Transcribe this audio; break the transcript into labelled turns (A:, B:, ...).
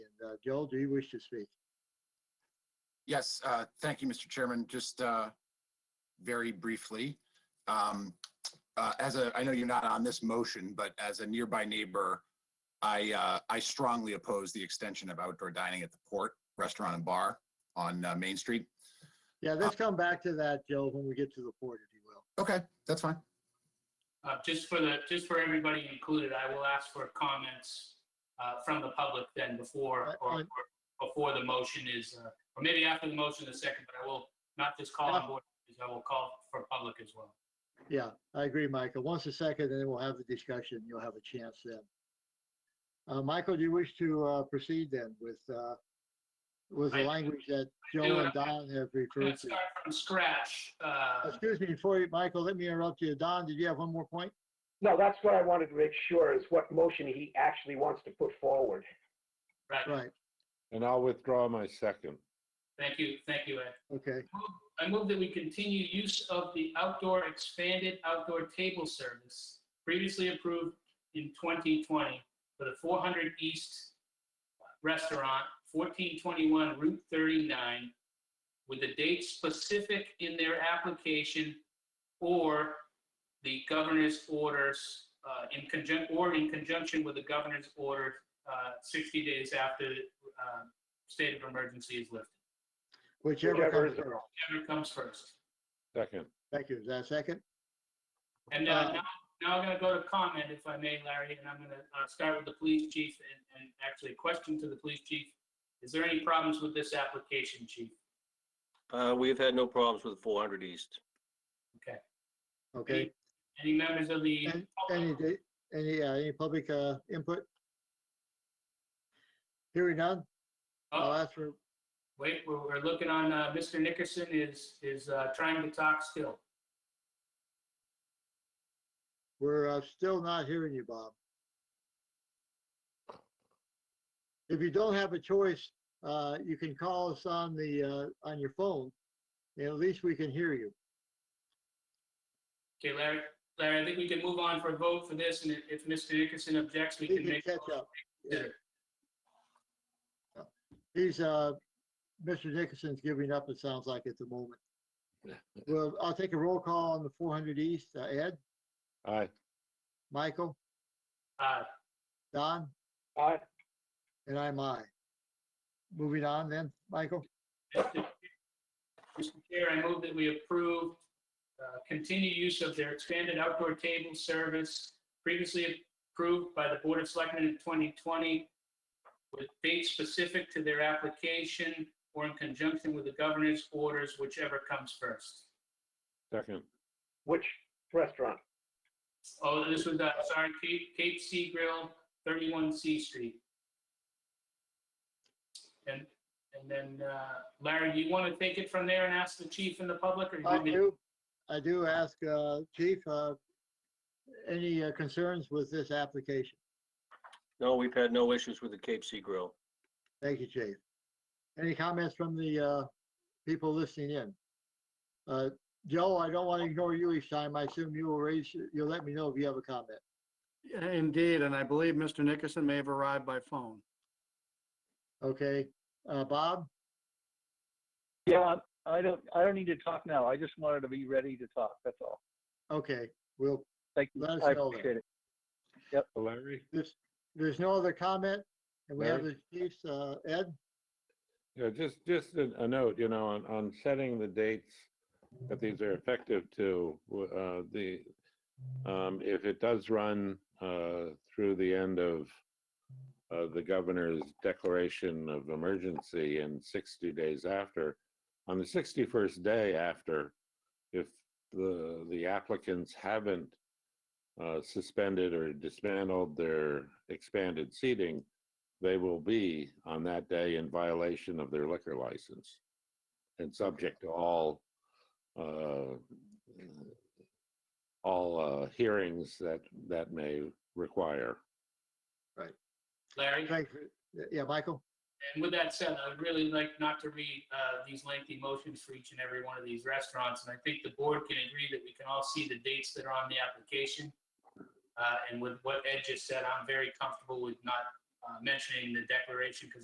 A: Uh, Joel, do you wish to speak?
B: Yes, uh, thank you, Mr. Chairman. Just uh, very briefly, um, uh, as a, I know you're not on this motion, but as a nearby neighbor, I, uh, I strongly oppose the extension of outdoor dining at the Port Restaurant and Bar on uh, Main Street.
A: Yeah, let's come back to that, Joel, when we get to the port, if you will.
B: Okay, that's fine.
C: Uh, just for the, just for everybody included, I will ask for comments, uh, from the public then before,
A: Right,
C: or,
A: right.
C: or before the motion is, uh, or maybe after the motion in a second, but I will not just call on board, I will call for public as well.
A: Yeah, I agree, Michael. Once a second, and then we'll have the discussion. You'll have a chance then. Uh, Michael, do you wish to uh, proceed then with, uh, with the
C: I-
A: language that
C: I do,
A: Joel
C: and
A: and Don have
C: I'm gonna
A: referred to?
C: start from scratch, uh,
A: Excuse me, before you, Michael, let me interrupt you. Don, did you have one more point?
D: No, that's what I wanted to make sure is what motion he actually wants to put forward.
C: right,
A: Right,
E: And I'll withdraw my second.
C: thank you, thank you, Ed.
A: okay.
C: I move that we continue use of the outdoor expanded outdoor table service previously approved in 2020 for the 400 East Restaurant, 1421 Route 39, with a date specific in their application or the governor's orders, uh, in conjunction, or in conjunction with the governor's order, uh, 60 days after, uh, state of emergency is lifted.
A: Whichever
D: Whichever
A: comes
D: is the-
A: first.
C: Whatever comes first.
E: Second.
A: Thank you. Is that a second?
C: And
A: Uh,
C: uh, now, now I'm going to go to comment, if I may, Larry, and I'm going to start with the police chief and, and actually a question to the police chief. Is there any problems with this application, chief?
F: Uh, we've had no problems with 400 East.
A: Okay.
C: Any members of the?
A: And- Any, di- any, uh, any public uh, input? Hearing none, I'll
C: Oh,
A: ask for,
C: Wait, we're, we're looking on, uh, Mr. Nickerson is, is uh, trying to talk still.
A: we're uh, still not hearing you, Bob. If you don't have a choice, uh, you can call us on the, uh, on your phone, and at least we can hear you.
C: Okay, Larry, Larry, I think we can move on for a vote for this, and if- if Mr. Nickerson objects, we
A: He
C: can
A: can
C: make. a
A: catch
C: motion.
A: up. Yeah. He's, uh, Mr. Nickerson's giving up, it sounds like, at the moment. Well, I'll take a roll call on the 400 East. Uh, Ed,
E: Aye.
A: Michael,
C: Uh,
A: Don,
D: Aye.
A: and I'm I. Moving on then, Michael?
C: Mr. Chair, I move that we approve uh, continued use of their expanded outdoor table service previously approved by the Board of Selectmen in 2020 with dates specific to their application or in conjunction with the governor's orders, whichever comes first.
E: Second.
D: Which restaurant?
C: Oh, this was, uh, sorry, Cape Cape Sea Grill, 31 C Street. And, and then uh, Larry, do you want to take it from there and ask the chief and the public? or you
A: I
C: want me to-
A: do, I do ask, uh, Chief, uh, any uh, concerns with this application?
F: No, we've had no issues with the Cape Sea Grill.
A: Thank you, Chief. Any comments from the, uh, people listening in? Uh, Joe, I don't want to ignore you each time. I assume you will raise, you'll let me know if you have a comment.
G: Indeed, and I believe Mr. Nickerson may have arrived by phone.
A: Okay, uh, Bob?
H: Yeah, I don't, I don't need to talk now. I just wanted to be ready to talk, that's all.
A: Okay, we'll,
H: Thank you.
A: Let us
H: I
A: know then.
H: appreciate it.
E: Larry?
A: there's, there's no other comment? And we have the
E: Larry?
A: chiefs, uh, Ed?
E: Yeah, just, just a a note, you know, on, on setting the dates that these are effective to, w- uh, the, um, if it does run, uh, through the end of, uh, the governor's declaration of emergency and sixty days after, on the sixty-first day after, if the, the applicants haven't, uh, suspended or dismantled their expanded seating, they will be on that day in violation of their liquor license and subject to all, uh, all uh, hearings that, that may require.
C: Larry?
A: Thanks. for- Yeah, Michael?
C: And with that said, I would really like not to read uh, these lengthy motions for each and every one of these restaurants. And I think the board can agree that we can all see the dates that are on the application. Uh, And with what Ed just said, I'm very comfortable with not uh, mentioning the declaration because